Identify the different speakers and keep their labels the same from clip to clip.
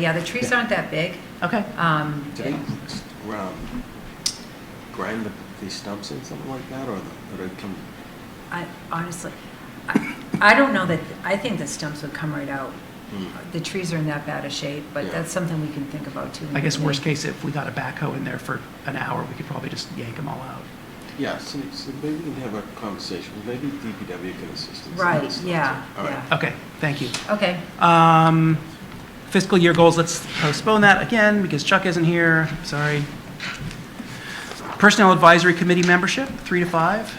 Speaker 1: Yeah, the trees aren't that big.
Speaker 2: Okay.
Speaker 1: Um,
Speaker 3: Do they um, grind the- the stumps in, something like that, or the- or they come,
Speaker 1: I honestly, I I don't know that, I think the stumps would come right out.
Speaker 3: Hmm.
Speaker 1: The trees are in that bad a shape, but
Speaker 3: Yeah.
Speaker 1: that's something we can think about too.
Speaker 2: I guess worst case, if we got a backhoe in there for an hour, we could probably just yank them all out.
Speaker 3: yeah, so so maybe we can have a conversation, maybe DPW can assist us. in
Speaker 1: Right,
Speaker 3: this.
Speaker 1: yeah,
Speaker 3: All right.
Speaker 1: yeah.
Speaker 2: Okay, thank you.
Speaker 1: Okay,
Speaker 2: Um, fiscal year goals, let's postpone that again because Chuck isn't here, sorry. Personnel Advisory Committee membership, three to five.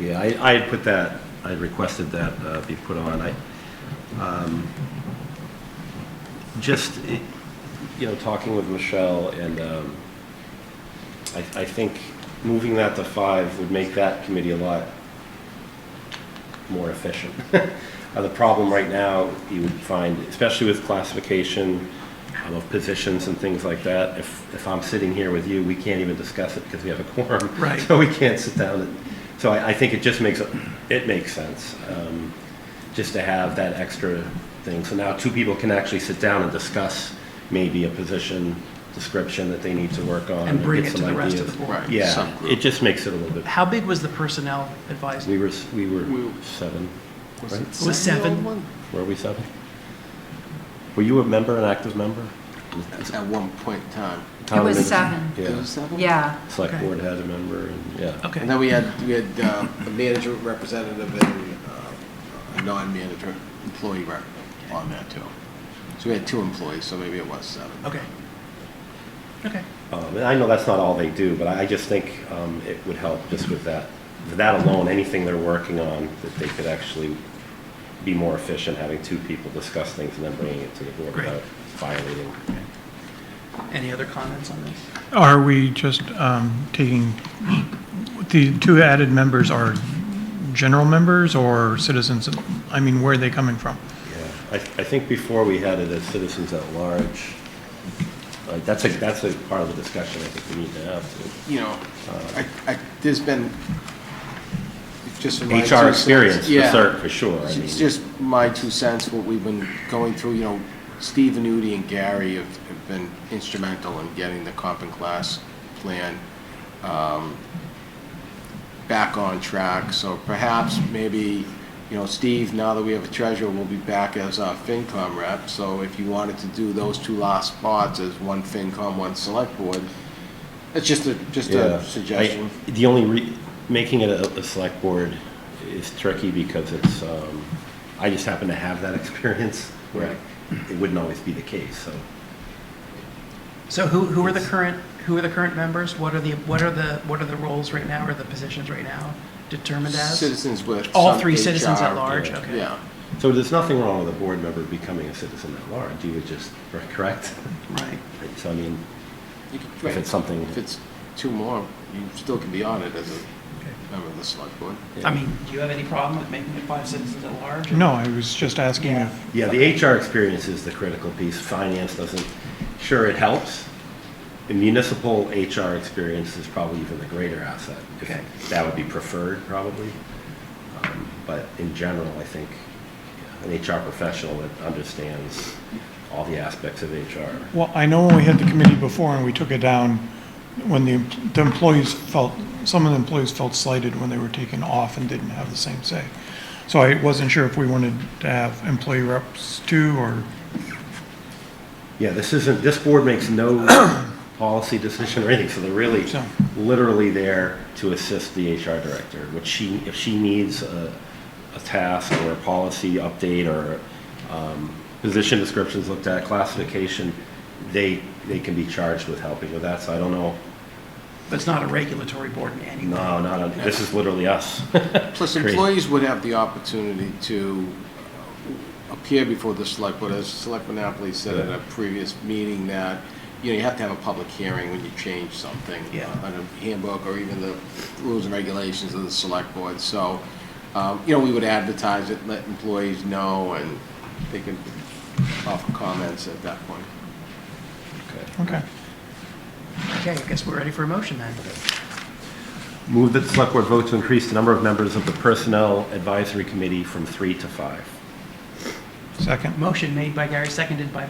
Speaker 4: Yeah, I, I had put that, I requested that uh, be put on. I, um, just, eh, you know, talking with Michelle and, um, I, I think moving that to five would make that committee a lot more efficient. Uh, The problem right now, you would find, especially with classification um, of positions and things like that, if, if I'm sitting here with you, we can't even discuss it because we have a quorum.
Speaker 2: Right.
Speaker 4: So we can't sit down. and- So I, I think it just makes, it makes sense, um, just to have that extra thing. So now two people can actually sit down and discuss maybe a position description that they need to work on.
Speaker 2: And bring
Speaker 4: get
Speaker 2: it to
Speaker 4: some
Speaker 2: the rest of
Speaker 4: ideas.
Speaker 2: the board.
Speaker 3: Right.
Speaker 4: Yeah,
Speaker 3: Subgroup.
Speaker 4: it just makes it a little bit,
Speaker 2: How big was the Personnel Advisory?
Speaker 4: we were, s- we were
Speaker 3: We-
Speaker 4: seven,
Speaker 3: Was
Speaker 4: right?
Speaker 3: it
Speaker 2: was
Speaker 3: the
Speaker 2: seven.
Speaker 3: old one?
Speaker 4: Were we seven? Were you a member, an active member?
Speaker 3: At at one point in time.
Speaker 4: Town
Speaker 1: was
Speaker 4: admin-
Speaker 1: seven.
Speaker 3: It was
Speaker 4: Yeah,
Speaker 3: seven?
Speaker 1: yeah,
Speaker 4: select
Speaker 2: Okay.
Speaker 4: board had a member, and, yeah.
Speaker 2: Okay.
Speaker 3: And then we had, we had uh, a manager representative and uh, a non-manager employee rep on that, too. So we had two employees, so maybe it was seven.
Speaker 2: Okay. Okay.
Speaker 4: Um, And I know that's not all they do, but I I just think um, it would help just with that. For that alone, anything they're working on, that they could actually be more efficient, having two people discuss things and then bringing it to the board
Speaker 2: Great.
Speaker 4: without violating.
Speaker 2: Any other comments on this?
Speaker 5: Are we just um, taking, the two added members are general members or citizens? I mean, where are they coming from?
Speaker 4: Yeah, I, I think before we had it as citizens at large. Uh, That's a, that's a part of the discussion I think we need to have. too.
Speaker 3: you know, I, I, there's been, just from my. two
Speaker 4: HR
Speaker 3: cents-
Speaker 4: experience, for
Speaker 3: Yeah.
Speaker 4: cert, for sure. I
Speaker 3: It's
Speaker 4: mean,
Speaker 3: just my two cents, what we've been going through, you know, Steve Anudi and Gary have, have been instrumental in getting the comp and class plan, um, back on track, so perhaps maybe, you know, Steve, now that we have a treasurer, will be back as our FinCom rep, so if you wanted to do those two last spots as one FinCom, one select board, it's just a, just
Speaker 4: yeah.
Speaker 3: a suggestion.
Speaker 4: I- The only, re- making it a, a select board is tricky because it's, um, I just happen to have that experience where it wouldn't always be the case, so.
Speaker 2: So who, who are the current, who are the current members? What are the, what are the, what are the roles right now or the positions right now determined as?
Speaker 3: Citizens with.
Speaker 2: All
Speaker 3: some
Speaker 2: three citizens at
Speaker 3: HR,
Speaker 2: large,
Speaker 4: yeah.
Speaker 2: okay.
Speaker 3: Yeah.
Speaker 4: So there's nothing wrong with a board member becoming a citizen at large, you would just, correct?
Speaker 2: Right.
Speaker 4: So I mean,
Speaker 3: You could-
Speaker 4: if it's something.
Speaker 3: If it's two more, you still can be on it as a member of the select board.
Speaker 2: I mean, do you have any problem with making it five citizens at large?
Speaker 5: No, I was just asking
Speaker 2: Yeah.
Speaker 5: if,
Speaker 4: Yeah, the HR experience is the critical piece. Finance doesn't, sure, it helps. The municipal HR experience is probably even the greater asset. if-
Speaker 2: Okay.
Speaker 4: That would be preferred, probably. Um, But in general, I think an HR professional that understands all the aspects of HR.
Speaker 5: well, I know when we had the committee before and we took it down, when the the employees felt, some of the employees felt slighted when they were taken off and didn't have the same say. So I wasn't sure if we wanted to have employee reps too, or,
Speaker 4: Yeah, this isn't, this board makes no policy decision or anything, so they're really
Speaker 5: So-
Speaker 4: literally there to assist the HR director, which she, if she needs a, a task or a policy update or um, position descriptions looked at, classification, they, they can be charged with helping with that, so I don't know,
Speaker 2: But it's not a regulatory board in any way.
Speaker 4: no, not, on- this is literally us.
Speaker 3: Plus,
Speaker 4: Great.
Speaker 3: employees would have the opportunity to uh, appear before the select board, as Selectman Napoli said at a previous meeting, that, you know, you have to have a public hearing when you change something.
Speaker 2: Yeah.
Speaker 3: uh, On a handbook or even the rules and regulations of the select board, so, um, you know, we would advertise it, let employees know, and they can offer comments at that point.
Speaker 4: Okay.
Speaker 5: okay.
Speaker 2: Okay, I guess we're ready for a motion then.
Speaker 4: Move that the select board vote to increase the number of members of the Personnel Advisory Committee from three to five.
Speaker 5: Second?
Speaker 2: Motion made by Gary, seconded by